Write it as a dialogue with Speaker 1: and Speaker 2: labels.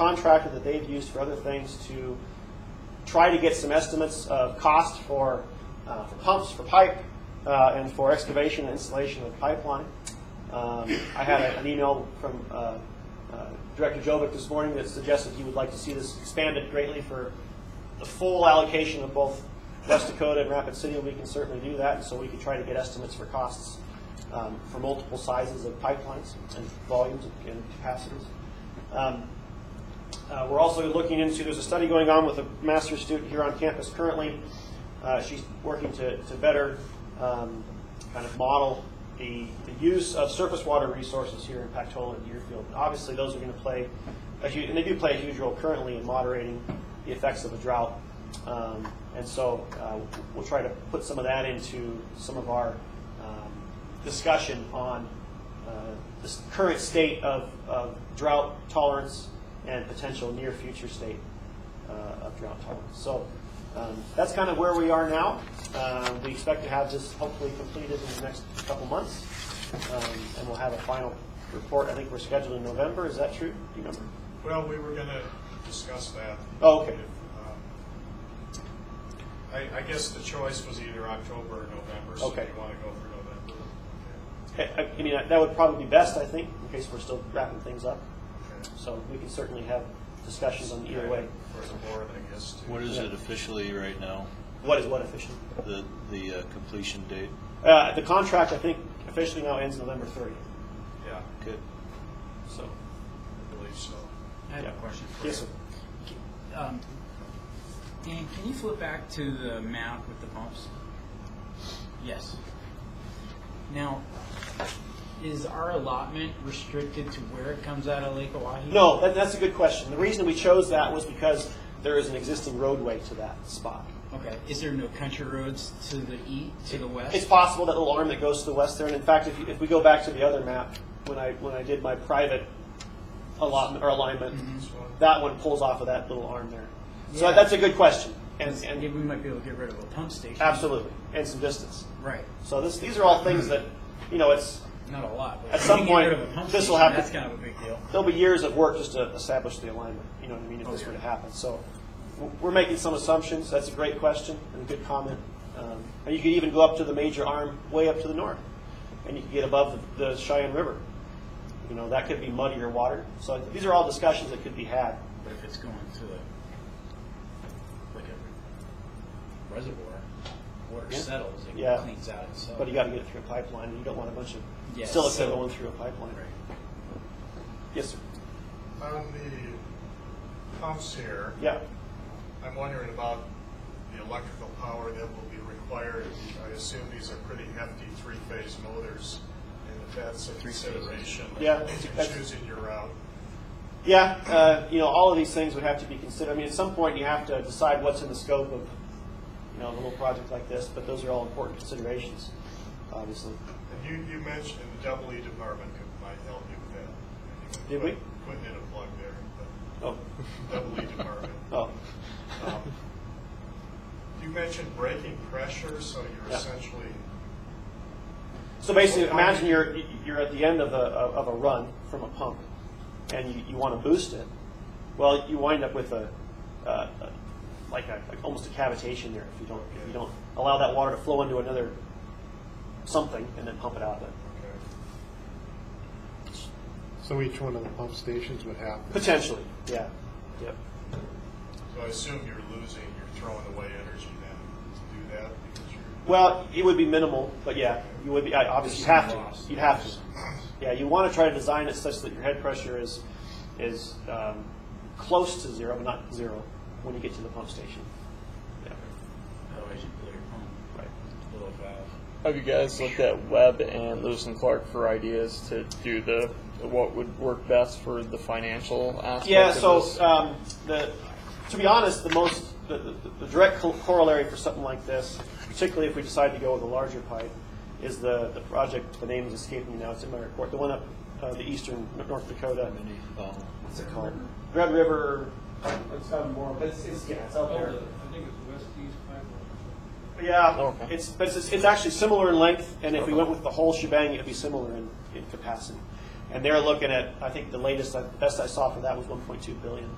Speaker 1: contractor that they've used for other things to try to get some estimates of cost for, uh, for pumps, for pipe, uh, and for excavation and installation of pipeline. Um, I had a- an email from uh, uh, Director Jovic this morning that suggested he would like to see this expanded greatly for the full allocation of both West Dakota and Rapid City, and we can certainly do that, and so we can try to get estimates for costs um, for multiple sizes of pipelines and volumes and capacities. Um, uh, We're also looking into, there's a study going on with a master's student here on campus currently. Uh, She's working to to better um, kind of model the the use of surface water resources here in Pactola and Deerfield. Obviously, those are going to play, a hu- and they do play a huge role currently in moderating the effects of a drought. Um, And so uh, we'll try to put some of that into some of our um, discussion on uh, the s- current state of, of drought tolerance and potential near future state uh, of drought tolerance. So um, that's kind of where we are now. Uh, we expect to have this hopefully completed in the next couple months, um, and we'll have a final report. I think we're scheduled in November. Is that true? Do you remember?
Speaker 2: Well, we were gonna discuss that.
Speaker 1: Oh, okay.
Speaker 2: If, um, I, I guess the choice was either October or November, so do
Speaker 1: Okay.
Speaker 2: you wanna go for November?
Speaker 1: I, I- I mean, that would probably be best, I think, in case we're still wrapping things up.
Speaker 2: Okay.
Speaker 1: So we can certainly have discussions on either way.
Speaker 2: For the board, I guess, too.
Speaker 3: What is it officially right now,
Speaker 1: What is what officially?
Speaker 3: the, the uh, completion date?
Speaker 1: Uh, the contract, I think, officially now ends November 30th.
Speaker 2: Yeah,
Speaker 3: Good.
Speaker 1: So,
Speaker 2: I believe so.
Speaker 4: I have
Speaker 1: yeah.
Speaker 4: a question for you.
Speaker 1: Yes, sir.
Speaker 4: Um, Dan, can you flip back to the map with the pumps? Yes. Now, is our allotment restricted to where it comes out of Lake Oahe?
Speaker 1: No, that, that's a good question. The reason we chose that was because there is an existing roadway to that spot.
Speaker 4: Okay, is there no country roads to the e, to the west?
Speaker 1: It's possible that little arm that goes to the west there, and in fact, if, you- if we go back to the other map, when I, when I did my private allotment or alignment,
Speaker 2: This one?
Speaker 1: that one pulls off of that little arm there. So
Speaker 4: Yeah.
Speaker 1: that's a good question, and,
Speaker 4: And,
Speaker 1: and
Speaker 4: we might be able to get rid of a pump station.
Speaker 1: absolutely, and some distance.
Speaker 4: Right,
Speaker 1: So this, these are all things that, you know, it's,
Speaker 4: not a lot. but
Speaker 1: At
Speaker 4: if we
Speaker 1: some
Speaker 4: can
Speaker 1: point,
Speaker 4: get rid of a pump
Speaker 1: this will
Speaker 4: station,
Speaker 1: happen.
Speaker 4: That's kind of a big deal.
Speaker 1: there'll be years of work just to establish the alignment, you know what I mean, if
Speaker 4: Oh,
Speaker 1: this
Speaker 4: yeah.
Speaker 1: were to happen. So w- we're making some assumptions, that's a great question and a good comment. Um, And you could even go up to the major arm way up to the north, and you could get above the the Cheyenne River. You know, that could be muddier water, so these are all discussions that could be had.
Speaker 4: But if it's going to a, like a reservoir, water
Speaker 1: Yeah.
Speaker 4: settles, it
Speaker 1: Yeah.
Speaker 4: cleans out itself.
Speaker 1: But you gotta get it through a pipeline, and you don't want a bunch of
Speaker 4: Yeah,
Speaker 1: silica
Speaker 4: so-
Speaker 1: going through a pipeline.
Speaker 4: Right.
Speaker 1: Yes, sir,
Speaker 2: On the pumps here,
Speaker 1: yeah.
Speaker 2: I'm wondering about the electrical power that will be required. I assume these are pretty hefty three-phase motors, and if that's a consideration
Speaker 1: Yeah,
Speaker 2: in
Speaker 1: that's-
Speaker 2: choosing your route.
Speaker 1: Yeah, uh, you know, all of these things would have to be considered. I mean, at some point, you have to decide what's in the scope of, you know, a little project like this, but those are all important considerations, obviously.
Speaker 2: And You, you mentioned the double E department could, might help you with that.
Speaker 1: Did we?
Speaker 2: Putting in a plug there, but
Speaker 1: Oh,
Speaker 2: double E department.
Speaker 1: oh,
Speaker 2: Um, You mentioned braking pressure, so
Speaker 1: Yeah.
Speaker 2: you're essentially,
Speaker 1: so basically, imagine you're, you're at the end of a, of a run from a pump, and you, you want to boost it. Well, you wind up with a, uh, a- like a, like almost a cavitation there if you don't, if you don't allow that water to flow into another something and then pump it out of it.
Speaker 2: okay,
Speaker 5: So each one of the pump stations would have,
Speaker 1: Potentially, yeah, yep.
Speaker 2: so I assume you're losing, you're throwing away energy then to do that because you're.
Speaker 1: Well, it would be minimal, but yeah, you would be, I- obviously, you have
Speaker 4: Loss.
Speaker 1: to, you'd have to. Yeah, you want to try to design it such that your head pressure is, is um, close to zero, but not zero, when you get to the pump station. Yeah,
Speaker 4: Otherwise, you blow your pump,
Speaker 1: right.
Speaker 4: blow a valve.
Speaker 6: Have you guys looked at Webb and Lewis and Clark for ideas to do the what would work best for the financial aspect?
Speaker 1: Yeah,
Speaker 6: of
Speaker 1: so
Speaker 6: this?
Speaker 1: um, the, to be honest, the most, the, the, the direct co- corollary for something like this, particularly if we decide to go with a larger pipe, is the, the project, the name is escaping me now, it's in my report, the one up uh, the eastern North Dakota.
Speaker 3: Many, um,
Speaker 1: What's it called? Red River. um, It's out more, but it's, it's yeah, it's out there.
Speaker 7: Oh, I think it's west east pipeline.
Speaker 1: Yeah,
Speaker 6: Okay.
Speaker 1: it's but it's, it's actually similar in length, and if we went with the whole shebang, it'd be similar in, in capacity. And they're looking at, I think the latest, uh, best I saw for that was 1.2 billion.